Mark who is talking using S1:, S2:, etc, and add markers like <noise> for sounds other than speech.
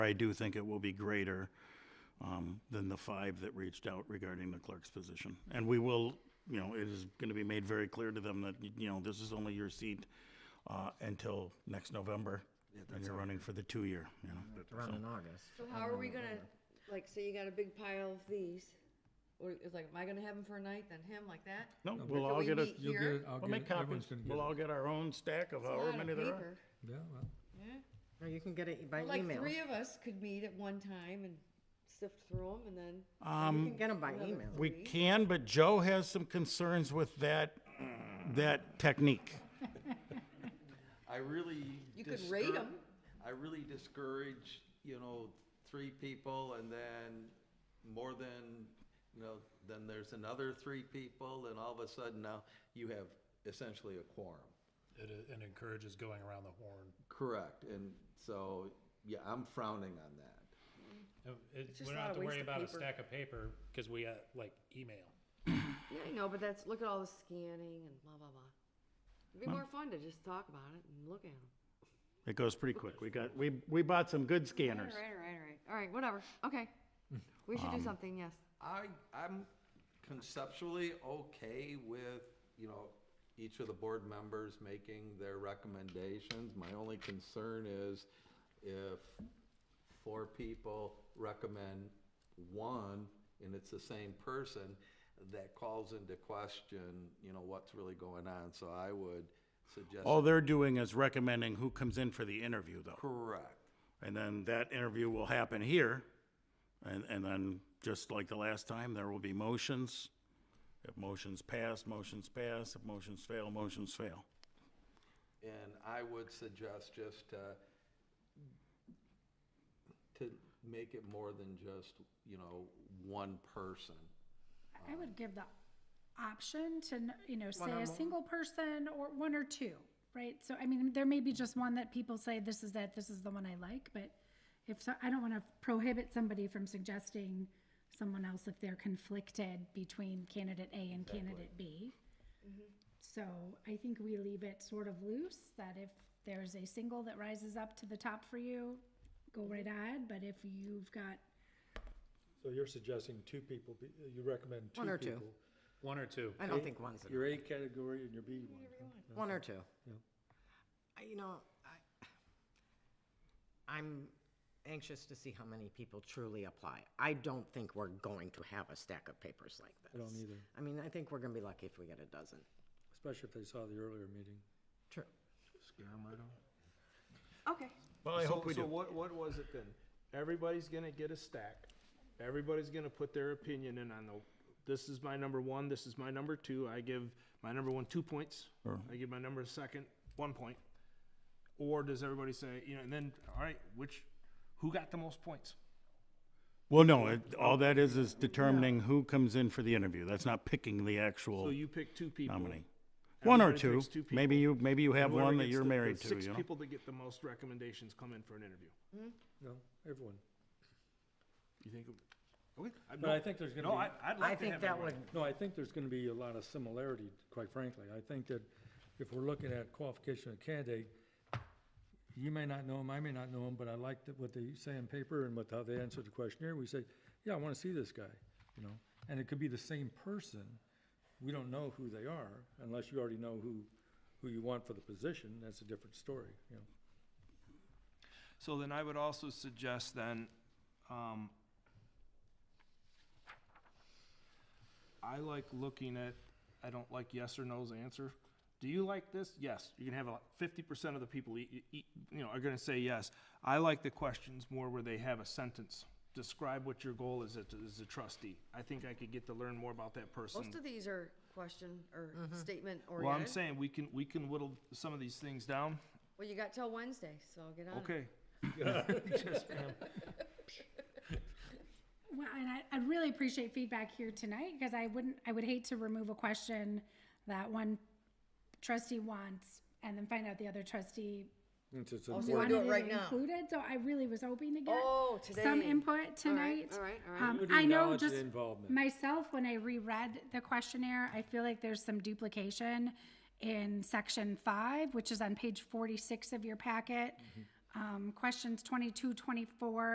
S1: I do think it will be greater um, than the five that reached out regarding the clerk's position. And we will, you know, it is going to be made very clear to them that, you know, this is only your seat uh, until next November, and you're running for the two-year, you know?
S2: Around in August.
S3: So how are we gonna, like, say you got a big pile of these, or it's like, am I gonna have them for a night, then him, like that?
S1: No, we'll all
S3: we
S1: get a,
S3: meet
S4: You'll get
S3: Here?
S4: it, I'll
S1: we'll
S4: get
S1: make
S4: it, everyone's
S1: copies.
S4: gonna get
S1: We'll
S4: it.
S1: all get our own stack of
S3: It's a
S1: however
S3: lot of
S1: many there are.
S3: paper.
S4: Yeah, well,
S3: Yeah.
S2: No, you can get it by
S3: Well, Like,
S2: email.
S3: three
S2: You
S3: of us could meet at one time and sift through them, and then,
S2: can get them by email.
S1: We can, but Joe has some concerns with that, that technique.
S5: I really.
S3: You could rate
S5: discour-
S3: 'em.
S5: I really discourage, you know, three people and then more than, you know, then there's another three people and all of a sudden now you have essentially a quorum.
S6: It, i- and encourages going around the horn.
S5: Correct, and so, yeah, I'm frowning on that.
S6: No, it-
S3: just a
S6: we don't
S3: lot
S6: have
S3: of
S6: to
S3: waste
S6: worry
S3: of
S6: about a
S3: paper.
S6: stack of paper because we uh, like email.
S3: yeah, I know, but that's, look at all the scanning and blah, blah, blah. It'd be more fun to just talk about it and look at them.
S1: It goes pretty quick. We got, we, we bought some good scanners.
S3: All right, all right, all right, all right, whatever, okay. <laughs> Um. We should do something, yes.
S5: I, I'm conceptually okay with, you know, each of the board members making their recommendations. My only concern is if four people recommend one and it's the same person, that calls into question, you know, what's really going on. So I would suggest,
S1: All they're doing is recommending who comes in for the interview, though.
S5: correct,
S1: And then that interview will happen here. And, and then, just like the last time, there will be motions. If motions pass, motions pass. If motions fail, motions fail.
S5: And I would suggest just to, to make it more than just, you know, one person.
S7: I would give the option to, n- you know, say a single person or one or two, right? So, I mean, there may be just one that people say, this is it, this is the one I like, but if, so- I don't want to prohibit somebody from suggesting someone else if they're conflicted between candidate A and candidate B. So I think we leave it sort of loose, that if there's a single that rises up to the top for you, go right ahead, but if you've got
S8: So you're suggesting two people, be- uh, you recommend two people?
S2: One or two.
S6: One or two.
S2: I don't think one's enough.
S8: Your A category and your B one.
S2: One or two. I- You know, I, I'm anxious to see how many people truly apply. I don't think we're going to have a stack of papers like this.
S8: I don't either.
S2: I mean, I think we're gonna be lucky if we get a dozen.
S8: Especially if they saw the earlier meeting.
S2: True.
S3: Okay.
S1: Well, I hope we
S9: So
S1: do.
S9: what, what was it then? Everybody's gonna get a stack. Everybody's gonna put their opinion in on the, this is my number one, this is my number two. I give my number one two points. I give my number second one point. Or does everybody say, you know, and then, all right, which, who got the most points?
S1: Well, no, it- all that is, is determining who comes in for the interview. That's not picking the
S9: So
S1: actual
S9: you pick two people.
S1: nominee. One or
S9: Everybody
S1: two.
S9: picks two people.
S1: Maybe you, maybe you have
S9: Whoever
S1: one that
S9: gets
S1: you're
S9: the- the
S1: married to,
S9: Six
S1: you know?
S9: people that get the most recommendations come in for an interview.
S8: No, everyone.
S9: You think? Okay.
S8: But I think there's gonna
S9: No,
S8: be-
S9: I, I'd
S2: I
S9: like to
S2: think
S9: have
S2: that
S9: everyone.
S2: would,
S8: No, I think there's gonna be a lot of similarity, quite frankly. I think that if we're looking at qualification of candidate, you may not know him, I may not know him, but I like that what they say on paper and what, how they answer the questionnaire. We say, yeah, I wanna see this guy, you know? And it could be the same person. We don't know who they are unless you already know who, who you want for the position. That's a different story, you know?
S9: So then I would also suggest then, um, I like looking at, I don't like yes or no's answer. Do you like this? Yes. You can have a fifty percent of the people, e- e- e- you know, are gonna say yes. I like the questions more where they have a sentence. Describe what your goal is as, a- as a trustee. I think I could get to learn more about that person.
S3: Most of these are question or statement oriented.
S9: Well, I'm saying we can, we can whittle some of these things down.
S3: Well, you got till Wednesday, so get on it.
S9: Okay.
S7: Well, and I, I really appreciate feedback here tonight because I wouldn't, I would hate to remove a question that one trustee wants and then find out the other trustee
S8: It's- it's a
S2: so you wanna
S7: wanted
S2: do
S7: it
S2: it right now?
S7: included. So I really was hoping to get
S3: Oh,
S7: some
S3: today.
S7: input
S3: All right,
S7: tonight.
S3: all right, all right.
S7: Um,
S8: would
S7: I know
S8: acknowledge the
S7: just
S8: involvement.
S7: myself, when I reread the questionnaire, I feel like there's some duplication in section
S8: Mm-hmm.
S7: five, which is on page forty-six of your packet. Um, questions 22, 24.